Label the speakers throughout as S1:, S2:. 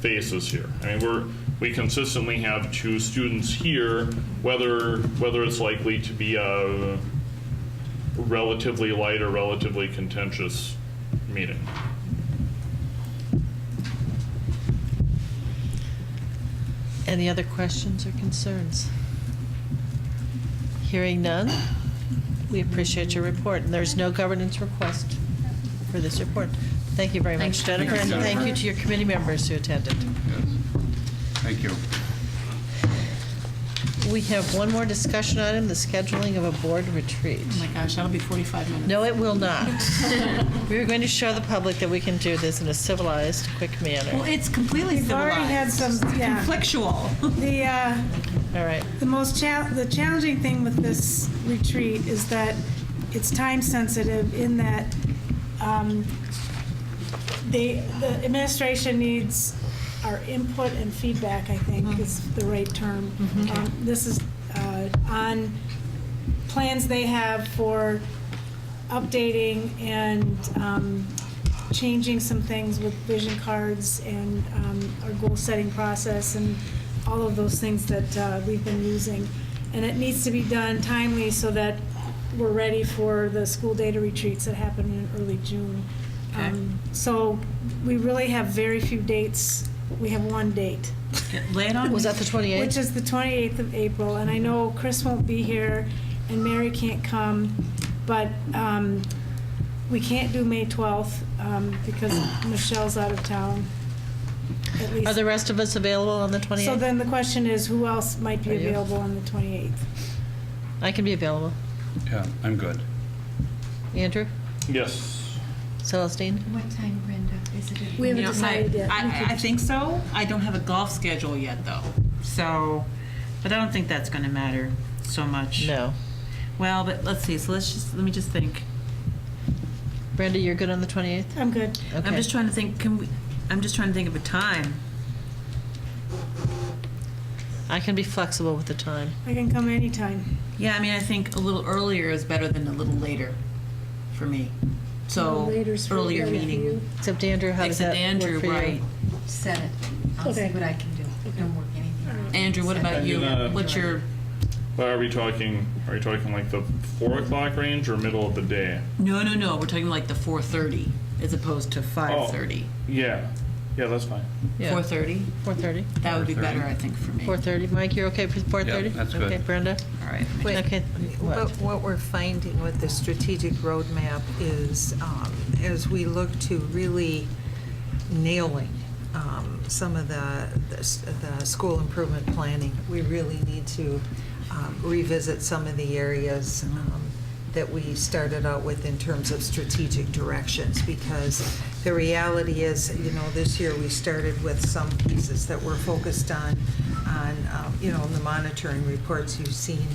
S1: faces here. I mean, we're, we consistently have two students here, whether, whether it's likely to be a relatively light or relatively contentious meeting.
S2: Any other questions or concerns? Hearing none, we appreciate your report, and there's no governance request for this report. Thank you very much,
S3: Thank you.
S2: Jennifer, and
S3: Thank you,
S2: thank you
S3: Jennifer.
S2: to your committee members who attended.
S3: Yes. Thank you.
S2: We have one more discussion item, the scheduling of a board retreat.
S4: Oh my gosh, that'll be 45 minutes.
S2: No, it will not. We are going to show the public that we can do this in a civilized, quick
S4: Well,
S2: manner.
S4: it's completely
S5: We've already had
S4: civilized.
S5: some, yeah.
S4: Conflictual.
S5: The, uh,
S2: All right.
S5: the most chal- the challenging thing with this retreat is that it's time sensitive in that um, the, the administration needs our input and feedback, I
S4: Mm-hmm.
S5: think is the right term. Um, This is uh, on plans they have for updating and um, changing some things with vision cards and um, our goal-setting process and all of those things that uh, we've been using. And it needs to be done timely so that we're ready for the school data retreats that happen in early June. Um, So we really have very few dates. We have one date.
S4: Lay it on
S2: Was
S4: me.
S2: that the 28th?
S5: Which is the 28th of April, and I know Chris won't be here, and Mary can't come, but um, we can't do May 12th um, because Michelle's out of town, at
S2: Are the
S5: least.
S2: rest of us available on the 28th?
S5: So then the question is, who else might be
S2: Are you?
S5: available on the 28th?
S2: I can be available.
S3: Yeah, I'm good.
S2: Andrew?
S1: Yes.
S2: Celestine?
S6: What time, Brenda? Is it? at
S5: We haven't
S6: nine?
S4: You know,
S5: decided
S4: I-
S5: yet.
S4: I, I think so. I don't have a golf schedule yet, though. So, but I don't think that's going to matter so much.
S2: No.
S4: Well, but let's see. So let's just, let me just think.
S2: Brenda, you're good on the 28th?
S5: I'm good.
S2: Okay.
S4: I'm just trying to think, can we, I'm just trying to think of a time.
S2: I can be flexible with the time.
S5: I can come anytime.
S4: Yeah, I mean, I think a little earlier is better than a little later for me. So,
S5: Later's for-
S4: earlier
S5: later for
S4: meeting.
S5: you.
S2: Except Andrew, how does that
S4: Except Andrew,
S2: work for you?
S4: right.
S6: Set it. I'll see
S5: Okay.
S6: what I can do. Don't work anything out.
S4: Andrew, what
S6: Set
S4: about
S6: it.
S4: you?
S1: And, uh,
S4: What's your,
S1: But are we talking, are you talking like the four o'clock range or middle of the day?
S4: no, no, no, we're talking like the 4:30 as opposed to 5:30.
S1: Yeah, yeah, that's fine.
S2: Oh. Yeah.
S4: 4:30?
S2: 4:30?
S4: That would be
S3: 4:30.
S4: better, I think, for me.
S2: 4:30. Mike, you're okay with 4:30?
S3: Yeah, that's good.
S2: Okay, Brenda?
S4: All right.
S7: Wait,
S2: Okay.
S7: But
S2: What?
S7: what we're finding with the strategic roadmap is, um, as we look to really nailing um, some of the, the s- the school improvement planning, we really need to um, revisit some of the areas um, that we started out with in terms of strategic directions, because the reality is, you know, this year we started with some pieces that were focused on, on, um, you know, the monitoring reports you've seen,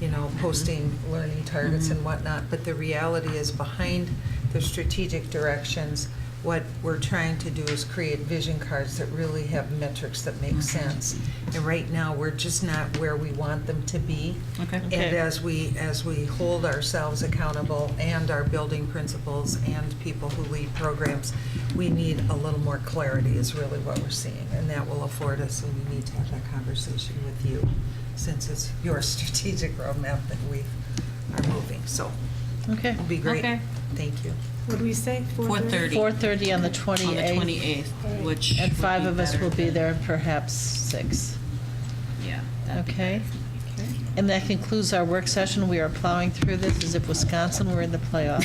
S7: you know, posting learning targets and whatnot, but the reality is behind the strategic directions, what we're trying to do is create vision cards that really have metrics that make sense. And right now, we're just not where we want them to be.
S4: Okay.
S2: Okay.
S7: And as we, as we hold ourselves accountable and our building principals and people who lead programs, we need a little more clarity is really what we're seeing. And that will afford us, and we need to have that conversation with you, since it's your strategic roadmap that we are moving. So
S2: Okay.
S7: it'll be great.
S4: Okay.
S7: Thank you.
S5: What'd we say?
S4: 4:30.
S2: 4:30 on the
S4: On the
S2: 28th.
S4: 28th, which.
S2: And
S4: would
S2: five
S4: be
S2: of us
S4: better
S2: will be
S4: than-
S2: there, perhaps six.
S4: Yeah. that'd be
S2: Okay?
S4: better.
S2: And that concludes our work session. We are plowing through this as if Wisconsin were in the playoffs.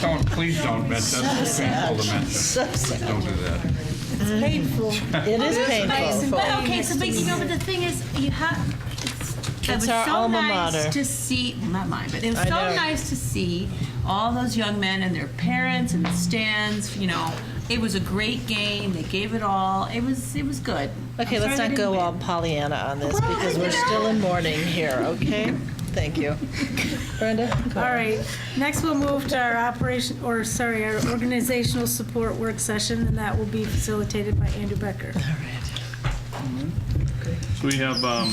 S3: Don't, please don't mention, that's painful to mention.
S2: So sad.
S3: Don't do that.
S5: It's painful.
S2: It is painful.
S8: But okay, so but you know, but the thing is, you have. It's, it
S2: It's
S8: was
S2: our
S8: so
S2: alma
S8: nice
S2: mater.
S8: To see, well, not mine, but it was
S2: I
S8: so
S2: know.
S8: nice to see all those young men and their parents and the stands. You know, it was a great game. They gave it all. It was it was good. I'm
S2: Okay,
S8: sorry
S2: let's
S8: they didn't
S2: not go
S8: win.
S2: all Pollyanna on this because we're still in mourning here, okay? Thank you. Brenda?
S5: All right, next we'll move to our operation, or sorry, our organizational support work session, and that will be facilitated by Andrew Becker.
S2: All right.
S1: So we have, um,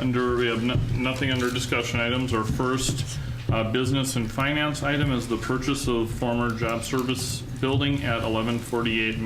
S1: under, we have no- nothing under discussion items. Our first uh, business and finance item is the purchase of former job service building at 1148 Main